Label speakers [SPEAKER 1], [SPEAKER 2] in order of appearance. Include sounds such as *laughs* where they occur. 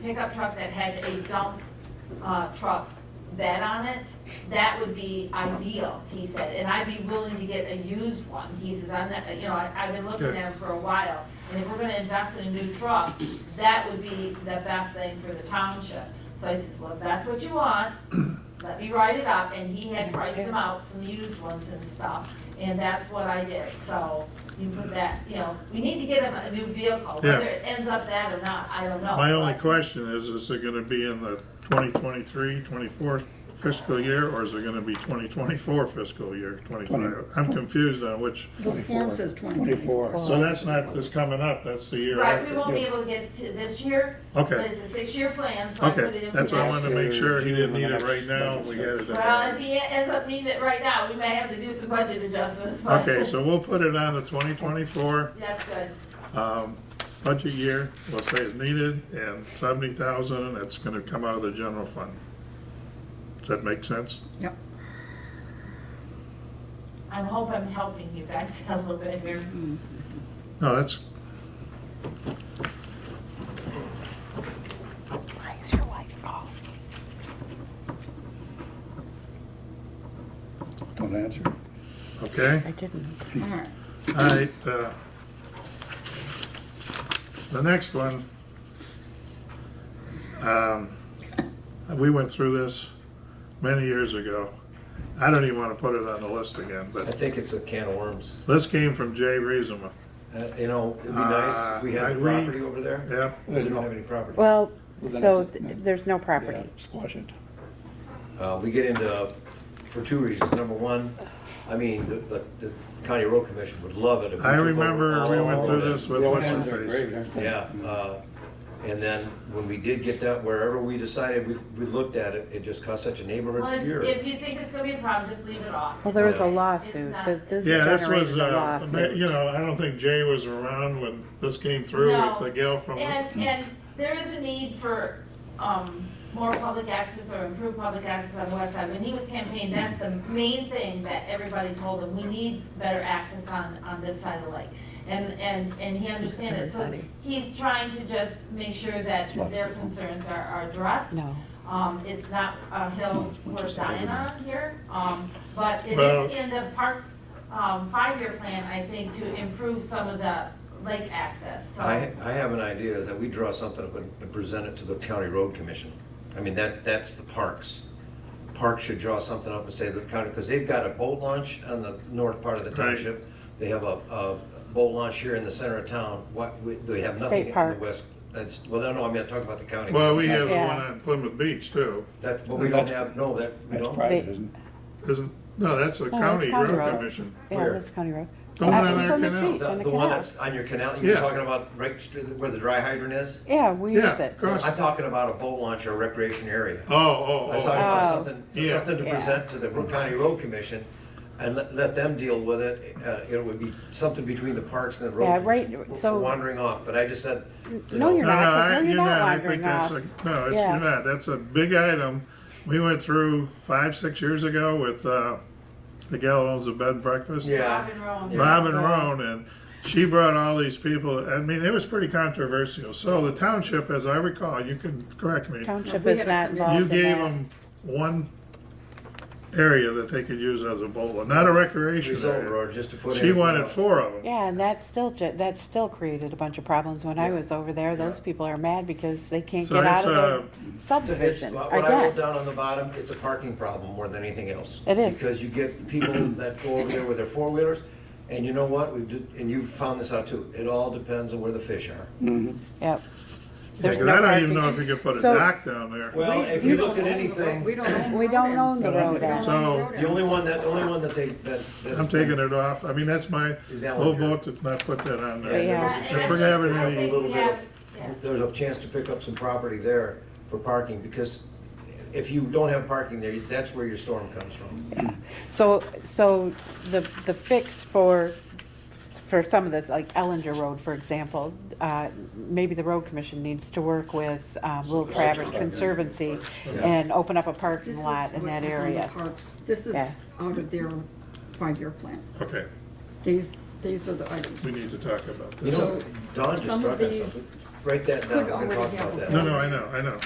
[SPEAKER 1] pickup truck that has a dump, uh, truck bed on it, that would be ideal, he said, and I'd be willing to get a used one, he says, I'm not, you know, I, I've been looking at them for a while, and if we're gonna invest in a new truck, that would be the best thing for the township. So I says, well, if that's what you
[SPEAKER 2] *clears throat*
[SPEAKER 1] want, let me write it up, and he had priced them out, some used ones and stuff, and that's what I did, so you put that, you know, we need to get him a new vehicle,
[SPEAKER 2] Yeah.
[SPEAKER 1] whether it ends up that or not, I don't know.
[SPEAKER 2] My only
[SPEAKER 1] but-
[SPEAKER 2] question is, is it gonna be in the 2023, 24 fiscal year, or is it gonna be twenty twenty-four fiscal year, twenty-five? I'm confused on which,
[SPEAKER 3] The form says 24.
[SPEAKER 4] Twenty-four.
[SPEAKER 2] so that's not this coming up, that's the year
[SPEAKER 1] Right, we
[SPEAKER 2] after.
[SPEAKER 1] won't be able to get it to this year, but
[SPEAKER 2] Okay,
[SPEAKER 1] it's a six-year plan, so I put it
[SPEAKER 2] okay,
[SPEAKER 1] in.
[SPEAKER 2] that's what I
[SPEAKER 1] there.
[SPEAKER 2] wanted to make sure, he didn't need it
[SPEAKER 4] Next
[SPEAKER 2] right now,
[SPEAKER 4] budget
[SPEAKER 2] we got it.
[SPEAKER 1] Well, if
[SPEAKER 2] in.
[SPEAKER 1] he ends up needing it right now, we may have to do some budget adjustments, but.
[SPEAKER 2] Okay, so we'll put it on the twenty twenty-four,
[SPEAKER 1] *laughs* That's good,
[SPEAKER 2] um, budget year, we'll say it's needed, and seventy thousand, and it's gonna come out of the general fund. Does that make sense?
[SPEAKER 3] Yep.
[SPEAKER 1] I hope I'm helping you guys *laughs* a little bit here.
[SPEAKER 2] No, that's,
[SPEAKER 5] Why is your wife off?
[SPEAKER 4] Don't answer.
[SPEAKER 2] okay?
[SPEAKER 5] I didn't.
[SPEAKER 3] All right.
[SPEAKER 2] All right, uh, the next one, um, we went through this many years ago. I don't even want to put it on the list again,
[SPEAKER 6] I
[SPEAKER 2] but
[SPEAKER 6] think it's a can of worms.
[SPEAKER 2] this came from Jay Reesema.
[SPEAKER 6] Uh, You know, it'd be nice if we
[SPEAKER 2] Uh, I
[SPEAKER 6] had the
[SPEAKER 2] agree.
[SPEAKER 6] property over there.
[SPEAKER 2] Yep,
[SPEAKER 6] We don't have any property.
[SPEAKER 5] Well,
[SPEAKER 4] Well, then
[SPEAKER 5] so
[SPEAKER 4] it's-
[SPEAKER 5] th- there's no
[SPEAKER 4] Yeah,
[SPEAKER 5] property.
[SPEAKER 4] squash it.
[SPEAKER 6] Uh, we get into, for two reasons. Number one, I mean, the, the the county road commission would love it if we
[SPEAKER 2] I
[SPEAKER 6] took over
[SPEAKER 2] remember we
[SPEAKER 6] all
[SPEAKER 2] went
[SPEAKER 6] of
[SPEAKER 2] through
[SPEAKER 6] it.
[SPEAKER 2] this with
[SPEAKER 4] Road
[SPEAKER 2] what's
[SPEAKER 4] ends
[SPEAKER 2] her
[SPEAKER 4] are
[SPEAKER 2] face.
[SPEAKER 4] great, aren't they?
[SPEAKER 6] Yeah, uh, and then when we did get that, wherever we decided, we, we looked at it, it just caused such a neighborhood
[SPEAKER 1] Well, if
[SPEAKER 6] fear.
[SPEAKER 1] if you think it's gonna be a problem, just leave it off.
[SPEAKER 5] Well, there was a
[SPEAKER 6] It's
[SPEAKER 5] lawsuit.
[SPEAKER 1] not-
[SPEAKER 5] Th- This
[SPEAKER 2] Yeah, this was,
[SPEAKER 5] generated a
[SPEAKER 2] uh, ma- you
[SPEAKER 5] lawsuit.
[SPEAKER 2] know, I don't think Jay was around when this came through
[SPEAKER 1] No.
[SPEAKER 2] with the gal from,
[SPEAKER 1] And, and there is a need for, um, more public access or improved public access on the west side. When he was campaigning, that's the main thing that everybody told him, we need better access on, on this side of the lake. And, and, and he understands it, so he's trying to just make sure that their concerns are, are addressed.
[SPEAKER 5] No.
[SPEAKER 1] Um, it's not a hill worth dying on here, um, but it
[SPEAKER 2] Well-
[SPEAKER 1] is in the parks, um, five-year plan, I think, to improve some of the lake access, so.
[SPEAKER 6] I, I have an idea, is that we draw something up and and present it to the county road commission. I mean, that, that's the parks. Parks should draw something up and say the county, because they've got a boat launch on the north part of the
[SPEAKER 2] Right.
[SPEAKER 6] township. They have a, a boat launch here in the center of town, what, we- they have nothing in the
[SPEAKER 5] park.
[SPEAKER 6] west. That's, well, no, no, I mean, I'm talking about the county.
[SPEAKER 2] well, we have the
[SPEAKER 5] Yeah.
[SPEAKER 2] one on Plymouth Beach too.
[SPEAKER 6] That, but we don't have, no, that, we
[SPEAKER 4] That's
[SPEAKER 6] don't.
[SPEAKER 4] private,
[SPEAKER 5] They-
[SPEAKER 4] isn't
[SPEAKER 2] Isn't, no, that's a
[SPEAKER 5] No,
[SPEAKER 2] county
[SPEAKER 5] Oh, it's county
[SPEAKER 2] road
[SPEAKER 5] road.
[SPEAKER 2] commission.
[SPEAKER 5] Yeah,
[SPEAKER 6] Where?
[SPEAKER 5] that's County Road.
[SPEAKER 2] The one
[SPEAKER 5] Up
[SPEAKER 2] on
[SPEAKER 5] in
[SPEAKER 2] our
[SPEAKER 5] Plymouth
[SPEAKER 2] canal.
[SPEAKER 5] Beach
[SPEAKER 6] The,
[SPEAKER 5] on the
[SPEAKER 6] the one
[SPEAKER 5] canal.
[SPEAKER 6] that's on your canal, you're
[SPEAKER 2] Yeah.
[SPEAKER 6] talking about right st- where the dry hydrant is?
[SPEAKER 5] Yeah, we
[SPEAKER 2] Yeah,
[SPEAKER 5] use it.
[SPEAKER 2] across-
[SPEAKER 6] I'm talking about a boat launch or recreation area.
[SPEAKER 2] Oh, oh,
[SPEAKER 6] I was talking
[SPEAKER 2] oh.
[SPEAKER 6] about
[SPEAKER 5] Oh.
[SPEAKER 6] something,
[SPEAKER 2] Yeah.
[SPEAKER 6] something to
[SPEAKER 5] Yeah.
[SPEAKER 6] present to the Brook County Road Commission and let, let them deal with it. Uh, It would be something between the parks and the road.
[SPEAKER 5] Yeah, right,
[SPEAKER 6] commission. We're-
[SPEAKER 5] so-
[SPEAKER 6] we're Wandering off, but I just said, you
[SPEAKER 5] No,
[SPEAKER 6] know,
[SPEAKER 5] you're
[SPEAKER 2] No, no,
[SPEAKER 5] not.
[SPEAKER 2] I,
[SPEAKER 5] No,
[SPEAKER 2] you're not, I think
[SPEAKER 5] wandering
[SPEAKER 2] that's
[SPEAKER 5] off.
[SPEAKER 2] a, no, it's,
[SPEAKER 5] Yeah.
[SPEAKER 2] you're not, that's a big item. We went through five, six years ago with, uh, the gal who owns a bed and breakfast.
[SPEAKER 6] Yeah.
[SPEAKER 1] Robin Rowan.
[SPEAKER 2] Bob and Roan, and she brought all these people, I mean, it was pretty controversial. So the township, as I recall, you can correct me,
[SPEAKER 5] Township
[SPEAKER 3] We
[SPEAKER 5] is
[SPEAKER 3] had a
[SPEAKER 5] not
[SPEAKER 3] committee.
[SPEAKER 5] involved
[SPEAKER 2] you
[SPEAKER 5] in
[SPEAKER 2] gave
[SPEAKER 5] that.
[SPEAKER 2] them one area that they could use as a bowl, not a recreation
[SPEAKER 6] rezone
[SPEAKER 2] area.
[SPEAKER 6] road just to put in. uh,
[SPEAKER 2] She
[SPEAKER 6] a-
[SPEAKER 2] wanted four of them.
[SPEAKER 5] Yeah, and that still, ge- that still created a bunch of problems. When I was over there, those people are mad because they can't
[SPEAKER 2] So
[SPEAKER 5] get
[SPEAKER 2] it's uh,
[SPEAKER 5] out of
[SPEAKER 2] a-
[SPEAKER 5] the
[SPEAKER 6] So It's,
[SPEAKER 5] subdivision.
[SPEAKER 6] what I wrote
[SPEAKER 5] Again,
[SPEAKER 6] down on the bottom, it's a parking problem more than anything else.
[SPEAKER 5] It is.
[SPEAKER 6] Because you
[SPEAKER 5] *coughs*
[SPEAKER 6] get people that go over there with their four-wheelers, and you know what, we did, and you found this out too, it all depends on where the fish are.
[SPEAKER 5] yep.
[SPEAKER 2] Yeah,
[SPEAKER 5] There's
[SPEAKER 2] 'cause
[SPEAKER 5] no
[SPEAKER 2] I don't even
[SPEAKER 5] parking.
[SPEAKER 2] know if you could put a
[SPEAKER 5] So-
[SPEAKER 2] dock down there.
[SPEAKER 6] Well, if you looked at anything.
[SPEAKER 3] We don't own the
[SPEAKER 5] We
[SPEAKER 3] road
[SPEAKER 5] don't
[SPEAKER 3] ends.
[SPEAKER 5] own the road ends.
[SPEAKER 2] So-
[SPEAKER 6] The only one that, the only one that they, that. that-
[SPEAKER 2] I'm taking it off. I mean, that's my
[SPEAKER 6] Is that
[SPEAKER 2] whole
[SPEAKER 6] what you're-
[SPEAKER 2] vote to not put that on there.
[SPEAKER 5] Yeah.
[SPEAKER 1] Yeah,
[SPEAKER 2] If
[SPEAKER 1] and
[SPEAKER 2] we're having
[SPEAKER 1] I
[SPEAKER 2] any,
[SPEAKER 1] think
[SPEAKER 6] little
[SPEAKER 1] we
[SPEAKER 6] bit of-
[SPEAKER 1] have- yeah.
[SPEAKER 6] There's a chance to pick up some property there for parking, because if you don't have parking there, that's where your storm comes from.
[SPEAKER 5] So, so the, the fix for, for some of this, like Ellinger Road, for example, uh, maybe the road commission needs to work with um, Little Traverse Conservancy and open up a
[SPEAKER 3] This
[SPEAKER 5] parking
[SPEAKER 3] is
[SPEAKER 5] lot in
[SPEAKER 3] what
[SPEAKER 5] that
[SPEAKER 3] is on the
[SPEAKER 5] area.
[SPEAKER 3] parks. This is
[SPEAKER 5] Yeah.
[SPEAKER 3] out of their five-year plan.
[SPEAKER 2] okay,
[SPEAKER 3] These, these are the items.
[SPEAKER 2] we need to talk about
[SPEAKER 6] You
[SPEAKER 2] this.
[SPEAKER 3] So,
[SPEAKER 6] know, Don just
[SPEAKER 3] Some
[SPEAKER 6] brought
[SPEAKER 3] of
[SPEAKER 6] that
[SPEAKER 3] these
[SPEAKER 6] something. write that down,
[SPEAKER 3] Could
[SPEAKER 6] we're gonna talk
[SPEAKER 3] already have
[SPEAKER 6] about
[SPEAKER 3] a
[SPEAKER 6] that.
[SPEAKER 2] No, no, I know, I know.